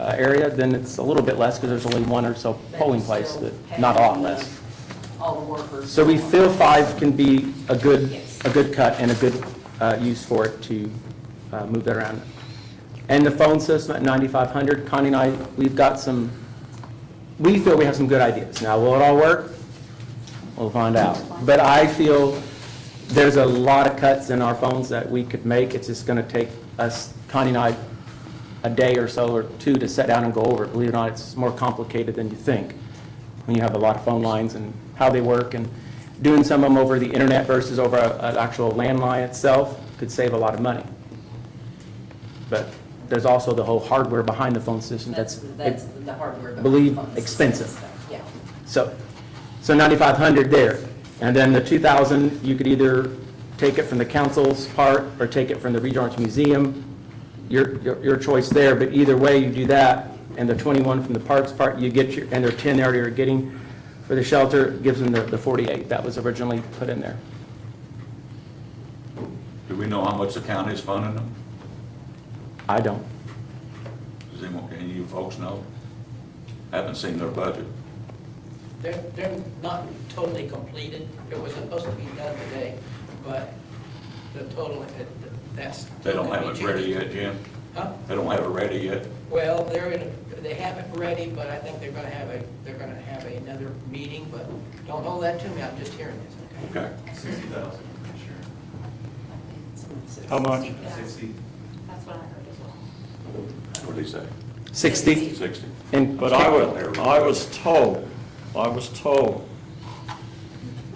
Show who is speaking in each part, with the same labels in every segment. Speaker 1: uh, area, then it's a little bit less because there's only one or so
Speaker 2: But
Speaker 1: polling
Speaker 2: you
Speaker 1: place,
Speaker 2: still
Speaker 1: that- not all
Speaker 2: have
Speaker 1: less.
Speaker 2: All the workers.
Speaker 1: So we feel five can be a good,
Speaker 2: Yes.
Speaker 1: a good cut and a good uh, use for it to uh, move that around. And the phone system at 9,500, Connie and I, we've got some, we feel we have some good ideas. Now, will it all work? We'll find out. But I feel there's a lot of cuts in our phones that we could make. It's just going to take us, Connie and I, a day or so or two to sit down and go over it. Believe it or not, it's more complicated than you think when you have a lot of phone lines and how they work. And doing some of them over the internet versus over a- an actual landline itself could save a lot of money. But there's also the whole hardware behind the phone system
Speaker 2: That's,
Speaker 1: that's,
Speaker 2: that's the hardware. but
Speaker 1: believe
Speaker 2: phones.
Speaker 1: expensive.
Speaker 2: Yeah.
Speaker 1: so, so 9,500 there. And then the 2,000, you could either take it from the council's part or take it from the Regional Arts Museum. Your, your your choice there, but either way you do that, and the 21 from the parks part, you get your, and their 10 there you're getting for the shelter, gives them the the 48 that was originally put in there.
Speaker 3: Do we know how much the county is funding them?
Speaker 1: I don't.
Speaker 3: Does anyone, any of you folks know? Haven't seen their budget.
Speaker 4: They're, they're not totally completed. It was supposed to be done today, but the total, it- that's.
Speaker 3: They don't have it ready yet, Jim?
Speaker 4: Huh?
Speaker 3: They don't have it ready yet?
Speaker 4: Well, they're in, a- they have it ready, but I think they're gonna have a, they're gonna have another meeting, but don't hold that to me. I'm just hearing this, okay?
Speaker 3: Okay.
Speaker 5: Sixty thousand, sure.
Speaker 1: How much?
Speaker 5: Sixty.
Speaker 6: That's what I heard as well.
Speaker 3: What'd he say?
Speaker 1: 60?
Speaker 3: Sixty?
Speaker 1: And
Speaker 7: But I was, I was told, I was told,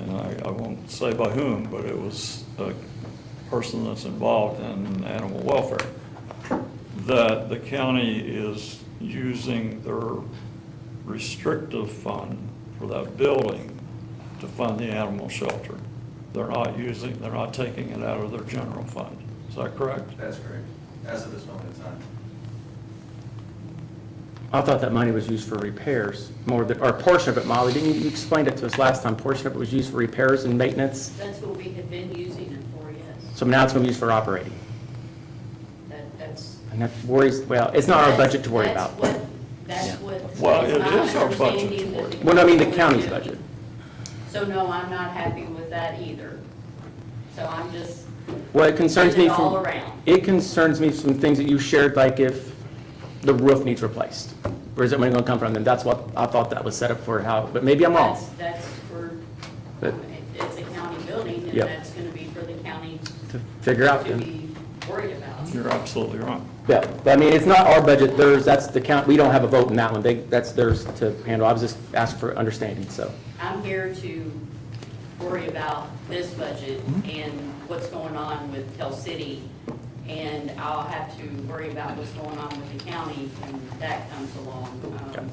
Speaker 7: and I, I won't say by whom, but it was a person that's involved in animal welfare, that the county is using their restrictive fund for that building to fund the animal shelter. They're not using, they're not taking it out of their general fund. Is that correct?
Speaker 5: That's correct, as of this moment in time.
Speaker 1: I thought that money was used for repairs, more than, or a portion of it, Molly, didn't you you explained it to us last time? Portion of it was used for repairs and maintenance,
Speaker 2: That's what we had been using it for, yes.
Speaker 1: so now it's going to be used for operating.
Speaker 2: That, that's.
Speaker 1: And that worries, well, it's not our
Speaker 2: that's-
Speaker 1: budget to worry
Speaker 2: that's
Speaker 1: about.
Speaker 2: what- That's what.
Speaker 7: Well,
Speaker 2: it's
Speaker 7: it
Speaker 2: my
Speaker 7: is our budget to
Speaker 2: understanding that
Speaker 7: worry about.
Speaker 1: Well, I mean, the county's budget.
Speaker 2: So no, I'm not happy with that either. So I'm just,
Speaker 1: Well, it concerns me
Speaker 2: It's all
Speaker 1: from,
Speaker 2: around.
Speaker 1: it concerns me from things that you shared, like if the roof needs replaced. Where is that money going to come from? And that's what, I thought that was set up for how, but maybe I'm wrong.
Speaker 2: that's, that's for,
Speaker 1: But-
Speaker 2: it's a county building, and
Speaker 1: Yep.
Speaker 2: that's gonna be for the county
Speaker 1: To figure out,
Speaker 2: to
Speaker 1: then.
Speaker 2: be worried about.
Speaker 7: You're absolutely wrong.
Speaker 1: yeah, but I mean, it's not our budget, theirs, that's the count, we don't have a vote in that one, they, that's theirs to handle. I was just asking for understanding, so.
Speaker 2: I'm here to worry about this budget
Speaker 1: Mm-hmm.
Speaker 2: and what's going on with Tell City, and I'll have to worry about what's going on with the county when that comes along. Um,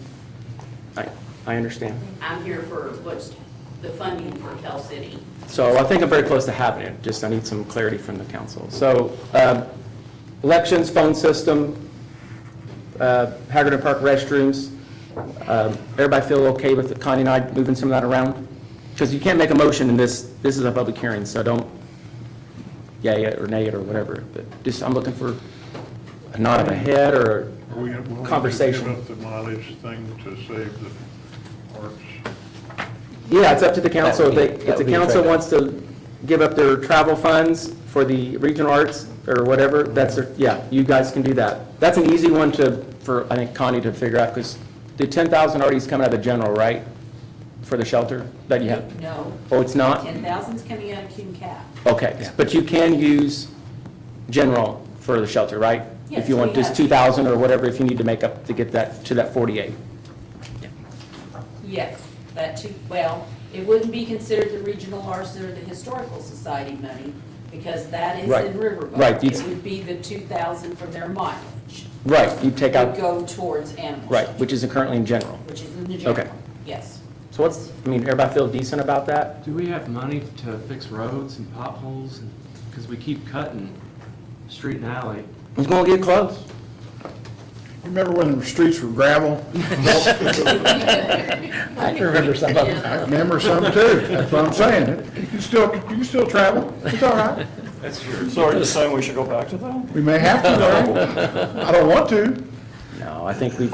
Speaker 1: I, I understand.
Speaker 2: I'm here for what's the funding for Tell City.
Speaker 1: So I think I'm very close to having it, just I need some clarity from the council. So um, elections, phone system, uh, Hagerty Park restrooms, um, everybody feel okay with Connie and I moving some of that around? Because you can't make a motion in this, this is a public hearing, so don't yay it or nay it or whatever, but just, I'm looking for a nod of a head or
Speaker 8: Are we willing
Speaker 1: a
Speaker 8: to
Speaker 1: conversation.
Speaker 8: Give up the mileage thing to save the parks.
Speaker 1: Yeah, it's up to the council.
Speaker 9: That would
Speaker 1: They-
Speaker 9: be-
Speaker 1: If
Speaker 9: that
Speaker 1: the
Speaker 9: would be
Speaker 1: council
Speaker 9: fair.
Speaker 1: wants to give up their travel funds for the regional arts or whatever, that's, their- yeah, you guys can do that. That's an easy one to, for, I think, Connie to figure out, because the 10,000 already is coming out of the general, right? For the shelter that you have?
Speaker 6: No,
Speaker 1: Oh, it's not?
Speaker 6: ten thousand's coming out of Cume Cap.
Speaker 1: Okay, but you can use general for the shelter, right? If
Speaker 6: Yes,
Speaker 1: you want
Speaker 6: we
Speaker 1: just
Speaker 6: have.
Speaker 1: 2,000 or whatever, if you need to make up to get that, to that 48.
Speaker 6: Yes, that too, well, it wouldn't be considered the regional arts or the historical society money, because that is
Speaker 1: Right.
Speaker 6: in Riverboat.
Speaker 1: Right, it's-
Speaker 6: It would be the two thousand from their mileage.
Speaker 1: Right, you take
Speaker 6: Would
Speaker 1: out,
Speaker 6: go towards animal
Speaker 1: right,
Speaker 6: shelter,
Speaker 1: which is currently in general.
Speaker 6: Which is in the general,
Speaker 1: Okay.
Speaker 6: yes.
Speaker 1: So what's, I mean, everybody feel decent about that?
Speaker 9: Do we have money to fix roads and potholes? Because we keep cutting street and alley.
Speaker 1: It's gonna get close.
Speaker 10: Remember when the streets were gravel? I can remember some of them. I remember some too, that's what I'm saying. You can still, you can still travel, it's all right.
Speaker 7: So are you saying we should go back to that?
Speaker 10: We may have to, though. I don't want to.
Speaker 1: No. now. I think we've